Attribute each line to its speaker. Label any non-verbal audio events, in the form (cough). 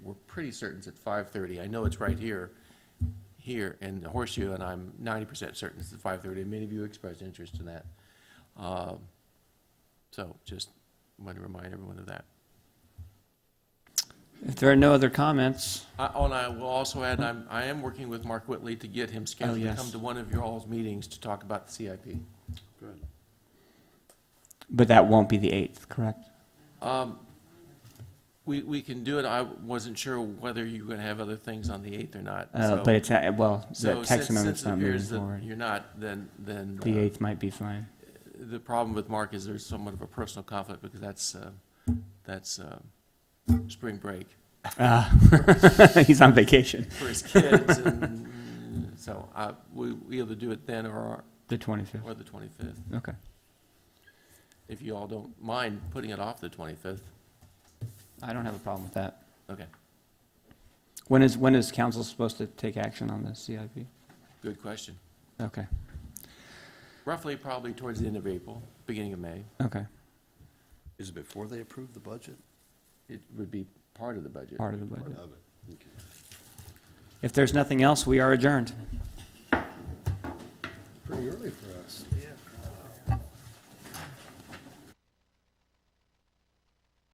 Speaker 1: pretty certain it's at five thirty. I know it's right here, here in the horseshoe, and I'm ninety percent certain it's at five thirty. Many of you expressed interest in that. Um, So just want to remind everyone of that.
Speaker 2: If there are no other comments,
Speaker 1: I- oh, And I will also add, I'm, I am working with Mark Whitley to get him scheduled to
Speaker 2: Oh, yes.
Speaker 1: come to one of your all's meetings to talk about the CIP.
Speaker 3: Good.
Speaker 2: but that won't be the 8th, correct?
Speaker 1: We, we can do it. I wasn't sure whether you were going to have other things on the 8th or not.
Speaker 2: Uh,
Speaker 1: so-
Speaker 2: But it's, uh, well,
Speaker 1: so
Speaker 2: the
Speaker 1: since-
Speaker 2: text amendment's
Speaker 1: since it
Speaker 2: not moving
Speaker 1: appears that
Speaker 2: forward.
Speaker 1: You're not, then, then.
Speaker 2: The
Speaker 1: uh,
Speaker 2: 8th might
Speaker 1: (laughs)
Speaker 2: be fine.
Speaker 1: The problem with Mark is there's somewhat of a personal conflict because that's, uh, that's uh, spring break
Speaker 2: Ah, (laughs) He's on vacation,
Speaker 1: for his kids. and (laughs) So I- we we either do it then or,
Speaker 2: the 25th.
Speaker 1: or the 25th.
Speaker 2: Okay.
Speaker 1: If you all don't mind putting it off the 25th.
Speaker 2: I don't have a problem with that.
Speaker 1: Okay,
Speaker 2: When is, when is council supposed to take action on the CIP?
Speaker 1: good question.
Speaker 2: Okay,
Speaker 1: Roughly probably towards the end of April, beginning of May.
Speaker 2: okay,
Speaker 3: Is it before they approve the budget?
Speaker 1: It would be part of the budget.
Speaker 2: part of the budget.
Speaker 3: Of it. Okay.
Speaker 2: If there's nothing else, we are adjourned.
Speaker 3: Pretty early for us. Yeah.